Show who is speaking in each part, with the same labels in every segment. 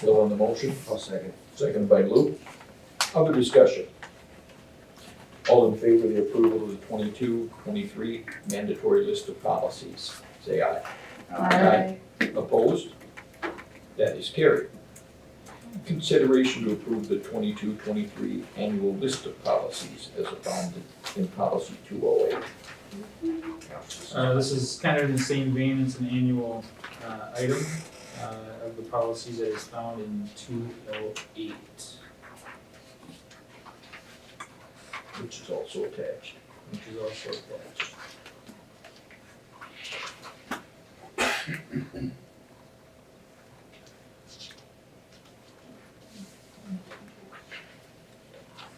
Speaker 1: Bill on the motion,
Speaker 2: I'll second.
Speaker 1: seconded by Lou. Other discussion? All in favor of the approval of the 22-23 mandatory list of policies, say aye. Aye. Opposed? That is carried. Consideration to approve the 22-23 annual list of policies as found in policy two oh eight.
Speaker 3: Uh, this is kind of in the same vein, it's an annual, uh, item, uh, of the policies that is found in two oh eight.
Speaker 1: Which is also attached.
Speaker 3: Which is also attached.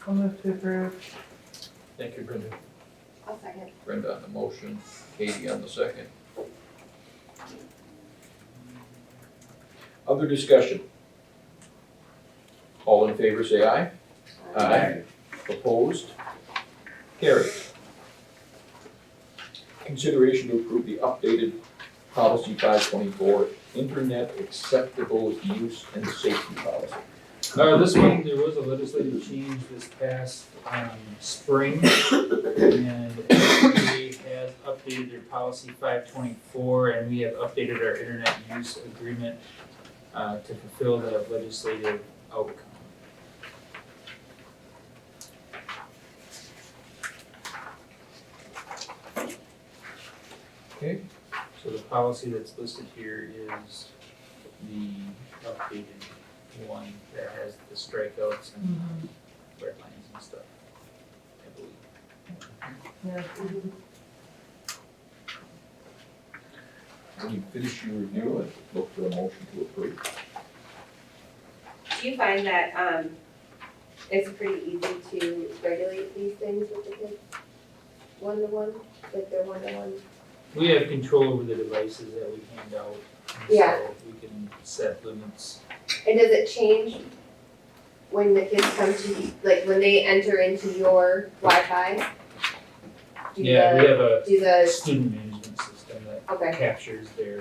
Speaker 4: I'll move to approve.
Speaker 1: Thank you, Brenda.
Speaker 5: I'll second.
Speaker 1: Brenda on the motion, Katie on the second. Other discussion? All in favor, say aye. Aye. Opposed? Carried. Consideration to approve the updated policy five twenty-four, internet acceptable use and safety policy.
Speaker 3: Uh, this one, there was a legislative change this past, um, spring. And FDA has updated their policy five twenty-four and we have updated our internet use agreement, uh, to fulfill that legislative outcome.
Speaker 1: Okay.
Speaker 3: So the policy that's listed here is the updated one that has the strikeouts and red lines and stuff, I believe.
Speaker 4: Yeah.
Speaker 1: When you finish your review, I'd look for a motion to approve.
Speaker 5: Do you find that, um, it's pretty easy to regulate these things with the kids? One-to-one, like they're one-to-one?
Speaker 3: We have control over the devices that we hand out, and
Speaker 5: Yeah.
Speaker 3: so we can set limits.
Speaker 5: And does it change when the kids come to, like, when they enter into your Wi-Fi? Do
Speaker 3: Yeah, we
Speaker 5: the,
Speaker 3: have a
Speaker 5: do the,
Speaker 3: student management system that
Speaker 5: okay,
Speaker 3: captures their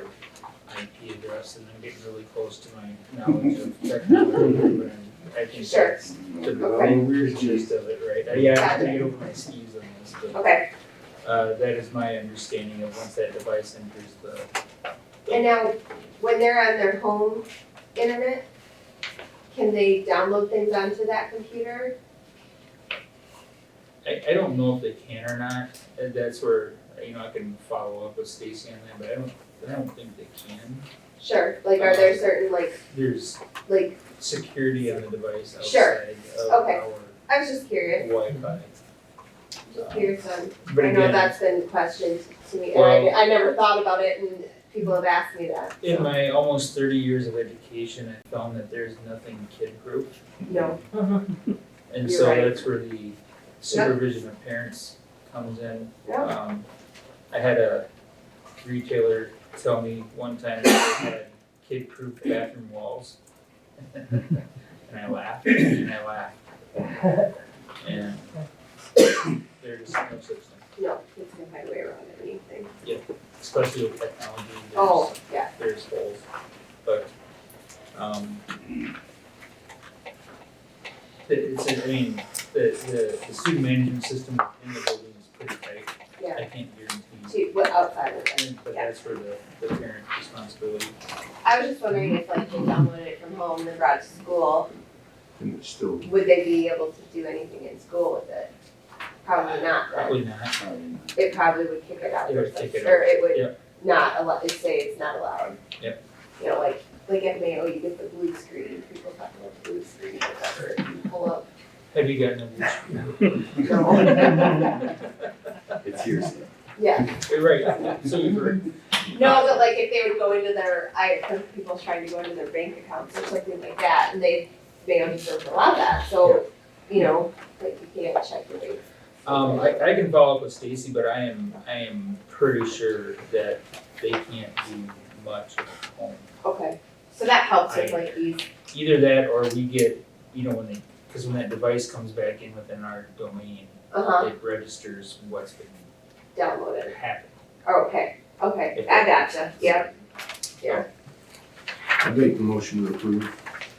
Speaker 3: IP address, and I'm getting really close to my knowledge of technology, but I'm- I think
Speaker 5: Sure.
Speaker 3: that's the
Speaker 5: Okay.
Speaker 3: weird gist of it, right? Uh, Yeah, I have to
Speaker 5: Gotcha.
Speaker 3: get over my skis on this, but,
Speaker 5: okay.
Speaker 3: uh, that is my understanding of once that device enters the.
Speaker 5: And now, when they're on their home internet, can they download things onto that computer?
Speaker 3: I, I don't know if they can or not, and that's where, you know, I can follow up with Stacy on that, but I don't, I don't think they can.
Speaker 5: Sure, like, are there certain, like,
Speaker 3: There's
Speaker 5: like,
Speaker 3: security on the device
Speaker 5: Sure.
Speaker 3: outside
Speaker 5: Okay.
Speaker 3: of
Speaker 5: I was just
Speaker 3: our
Speaker 5: curious,
Speaker 3: Wi-Fi.
Speaker 5: just curious on
Speaker 3: But
Speaker 5: I know
Speaker 3: again,
Speaker 5: that's been questioned to me, and I, I never thought about it, and people have asked me that,
Speaker 3: In my almost thirty years of education, I found that there's nothing kid proof.
Speaker 5: no.
Speaker 3: And
Speaker 5: You're
Speaker 3: so
Speaker 5: right.
Speaker 3: that's where the supervision of parents comes in.
Speaker 5: Yeah.
Speaker 3: Um, I had a retailer tell me one time that they had kid proof bathroom walls. And I laughed, and I laughed. And there's no such thing,
Speaker 5: No, kids can find a way around anything.
Speaker 3: especially with technology. there's-
Speaker 5: Oh, yeah,
Speaker 3: there's holes, but, um. It, it's, I mean, the, the, the student management system in the building is pretty tight,
Speaker 5: yeah,
Speaker 3: I can't guarantee,
Speaker 5: to, what, outside of it.
Speaker 3: but that's where the, the parent responsibility.
Speaker 5: I was just wondering if like they downloaded it from home and brought it to school,
Speaker 2: And it's still.
Speaker 5: would they be able to do anything in school with it? Probably not, then,
Speaker 3: Probably not,
Speaker 2: um,
Speaker 5: it probably would kick it out,
Speaker 3: It
Speaker 5: or
Speaker 3: would kick it
Speaker 5: something, or it
Speaker 3: yeah.
Speaker 5: would not allow, it'd say it's not allowed.
Speaker 3: Yep.
Speaker 5: You know, like, like at Mayo, you get the blue screen, people talk about the blue screen, or whatever, you pull up
Speaker 3: have you gotten a blue
Speaker 5: No.
Speaker 2: It's hearsay.
Speaker 5: Yeah,
Speaker 3: screen? Right, so you've heard,
Speaker 5: no, but like if they would go into their, I, some people trying to go into their bank accounts or something like that, and they, they don't deserve to allow that, so, you know, like you can't check your bank.
Speaker 3: um, I, I can follow up with Stacy, but I am, I am pretty sure that they can't do much at home.
Speaker 5: Okay, so that helps with like these,
Speaker 3: either that or we get, you know, when they, because when that device comes back in within our domain,
Speaker 5: uh-huh,
Speaker 3: it registers what's been
Speaker 5: downloaded,
Speaker 3: happening.
Speaker 5: oh, okay, okay, I gotcha, yeah,
Speaker 2: I make the motion to approve.